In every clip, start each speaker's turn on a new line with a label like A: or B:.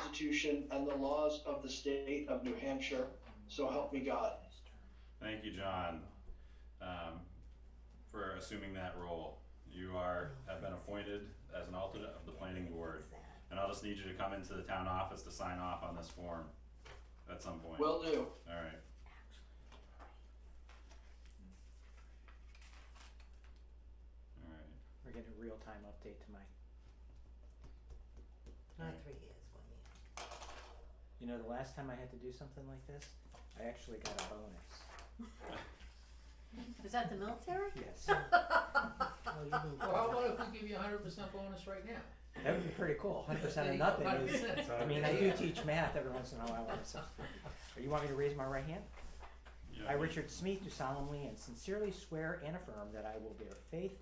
A: Constitution and the laws of the state of New Hampshire, so help me God.
B: Thank you, John, um, for assuming that role. You are, have been appointed as an alternate of the planning board. And I'll just need you to come into the town office to sign off on this form at some point.
A: Will do.
B: Alright. Alright,
C: We're getting a real time update to my.
D: Not
B: Right.
D: three years, one year.
C: You know, the last time I had to do something like this, I actually got a bonus.
D: Is that the military?
C: Yes.
D: Oh,
E: Well, how about if we give you a hundred percent bonus right now?
C: that would be pretty cool. 100%
E: There
C: of
E: you go,
C: nothing is.
E: 100%.
C: I mean, I do teach math every once in a while. So. You want me to raise my right hand?
B: yeah,
C: I,
B: you-
C: Richard Smith, do solemnly and sincerely swear and affirm that I will bear faith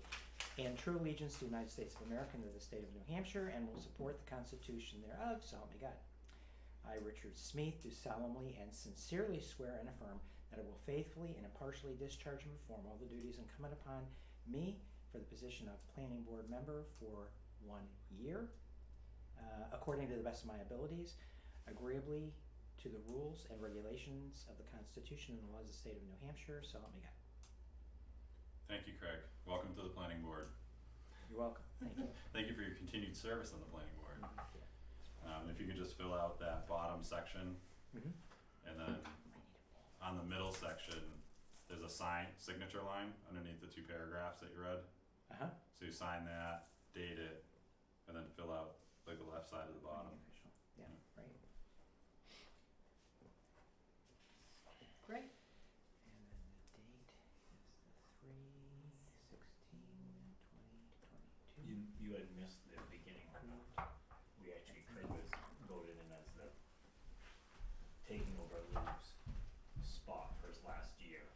C: and true allegiance to the United States of America and to the state of New Hampshire and will support the Constitution thereof, so help me God. I, Richard Smith, do solemnly and sincerely swear and affirm that I will faithfully and impartially discharge and perform all the duties incumbent upon me for the position of planning board member for one year, uh, according to the best of my abilities, agreeably to the rules and regulations of the Constitution and the laws of the state of New Hampshire, so help me God.
B: Thank you, Craig. Welcome to the planning board.
C: You're welcome. Thank you.
B: Thank you for your continued service on the planning board. Um, if you could just fill out that bottom section
C: Mhm.
B: and then on the middle section, there's a sign, signature line underneath the two paragraphs that you read.
C: Uh-huh.
B: So you sign that, date it, and then fill out like the left side of the bottom.
C: Official. Yeah, right.
D: Great.
C: And then the date is the three, sixteen, twenty,
F: You,
C: twenty-two.
F: you had missed the beginning. We actually, Craig was voted in as the taking over Lou's spot for his last year,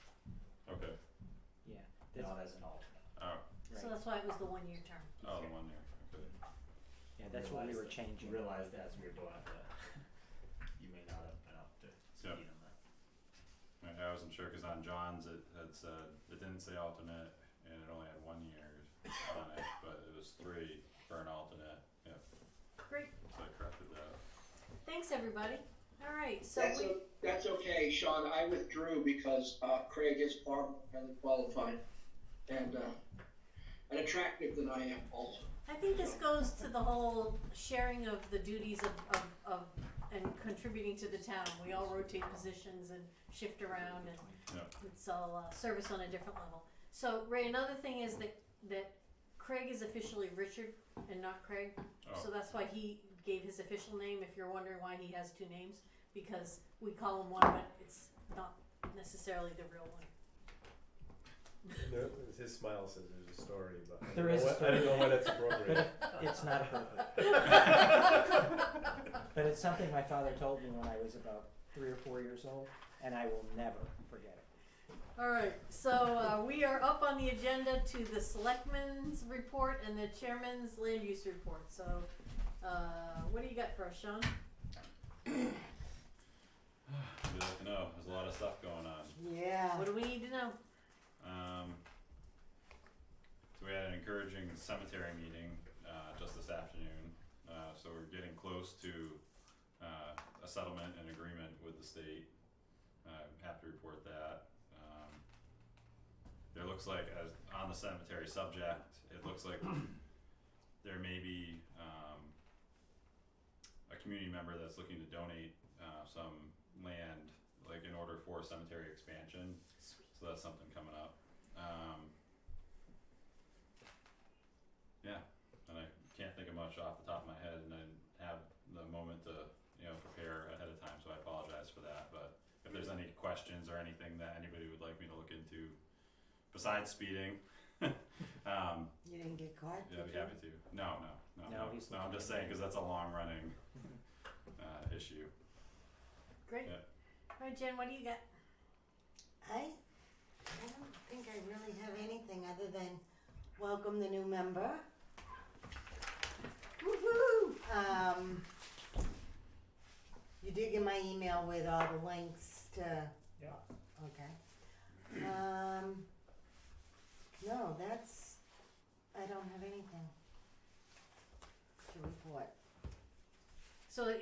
B: Okay.
C: Yeah, that's,
F: not as an alternate.
B: Oh,
D: So
C: right.
D: that's why it was the one year term.
B: oh, the one there. Okay.
C: Yeah, that's what we
F: Realized
C: were
F: that-
C: changing.
F: Realized as we were doing it that you may not have been up to
B: Yeah.
F: speed on that.
B: Alright, I wasn't sure because on John's it had said it didn't say alternate and it only had one year on it, but it was three for an alternate. Yeah,
D: Great.
B: so I corrected that.
D: Thanks, everybody. All right. So
A: That's,
D: we.
A: o- that's okay, Sean. I withdrew because uh, Craig is far more highly qualified and uh, and attractive than I am also.
D: I think this goes to the whole sharing of the duties of, of, of and contributing to the town. We all rotate positions and shift around and
B: Yeah.
D: it's all uh, service on a different level. So Ray, another thing is that, that Craig is officially Richard and not Craig. So
B: Oh,
D: that's why he gave his official name, if you're wondering why he has two names, because we call him one, but it's not necessarily the real one.
G: No, his smile says there's a story, but I
C: There
G: don't
C: is a
G: know what, I don't know why that's appropriate.
C: It's not appropriate. But it's something my father told me when I was about three or four years old, and I will never forget it.
D: All right, so uh, we are up on the agenda to the selectmen's report and the chairman's land use report. So, uh, what do you got for us, Sean?
B: you'd like to know. There's a lot of stuff going on.
D: Yeah. What do we need to know?
B: Um, so we had an encouraging cemetery meeting uh, just this afternoon. Uh, so we're getting close to uh, a settlement and agreement with the state. Uh, have to report that. Um, there looks like, as on the cemetery subject, it looks like there may be um, a community member that's looking to donate uh, some land, like in order for cemetery expansion. So that's something coming up. Um, yeah, and I can't think of much off the top of my head, and I didn't have the moment to you know prepare ahead of time, so I apologize for that. But if there's any questions or anything that anybody would like me to look into, besides speeding, um,
D: You didn't get caught?
B: yeah, I'd be happy to. No,
C: No,
B: no, no, no.
C: he's
B: no I'm
C: looking
B: just
C: at
B: saying because that's a long running uh, issue.
D: Great.
B: Yeah.
D: All right, Jen, what do you got?
H: I, I don't think I really have anything other than welcome the new member. Woohoo! Um, you did get my email with all the links to.
F: Yeah.
H: Okay. Um, no, that's, I don't have anything to report.
D: So